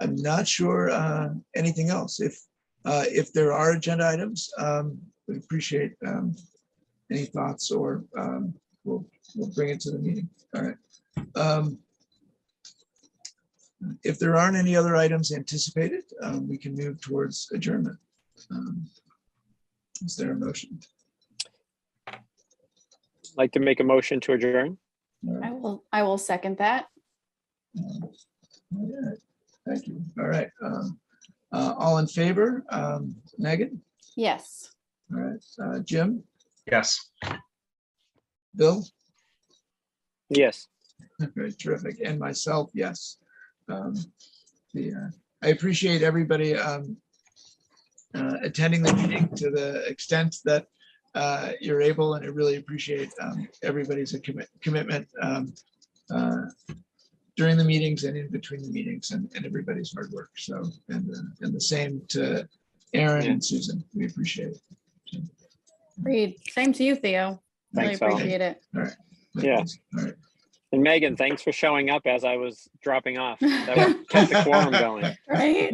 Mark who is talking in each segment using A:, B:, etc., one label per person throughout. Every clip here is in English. A: I'm not sure uh, anything else. If, uh, if there are agenda items, um, we appreciate um, any thoughts or um, we'll, we'll bring it to the meeting. All right. Um, If there aren't any other items anticipated, um, we can move towards adjournment. Um, Is there a motion?
B: Like to make a motion to adjourn?
A: All
C: I
A: right.
C: will, I will second that.
A: All right. Thank you. All right. Um, uh, All in favor? Um, Megan?
C: Yes.
A: All right. Uh, Jim?
D: Yes.
A: Bill?
B: Yes.
A: Very Terrific. And myself, yes. Um, The, uh, I appreciate everybody um, uh, attending the meeting to the extent that uh, you're able, and I really appreciate um, everybody's commi- commitment um, uh, during the meetings and in between the meetings and and everybody's hard work. So, and uh, and the same to Aaron and Susan. We appreciate it.
C: Agreed. Same to you, Theo. Really
B: Thanks, Al.
C: appreciate it.
B: Yeah.
A: All right.
B: And Megan, thanks for showing up as I was dropping off. That was- kept the quorum going.
C: Right?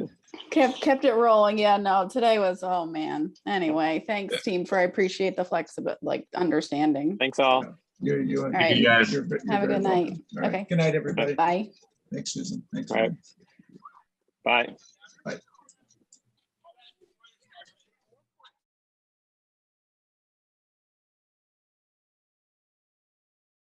C: Kept, kept it rolling. Yeah, no, today was, oh man. Anyway, thanks team for, I appreciate the flexible, like, understanding.
B: Thanks all.
A: You're, you. are-
C: right.
D: You guys.
A: you're ve- you're
C: Have a
A: very
C: good night.
A: welcome. All right.
C: Okay.
A: Good night, everybody.
C: Bye.
A: Thanks, Susan. Thanks.
B: All right.
A: Aaron.
B: Bye.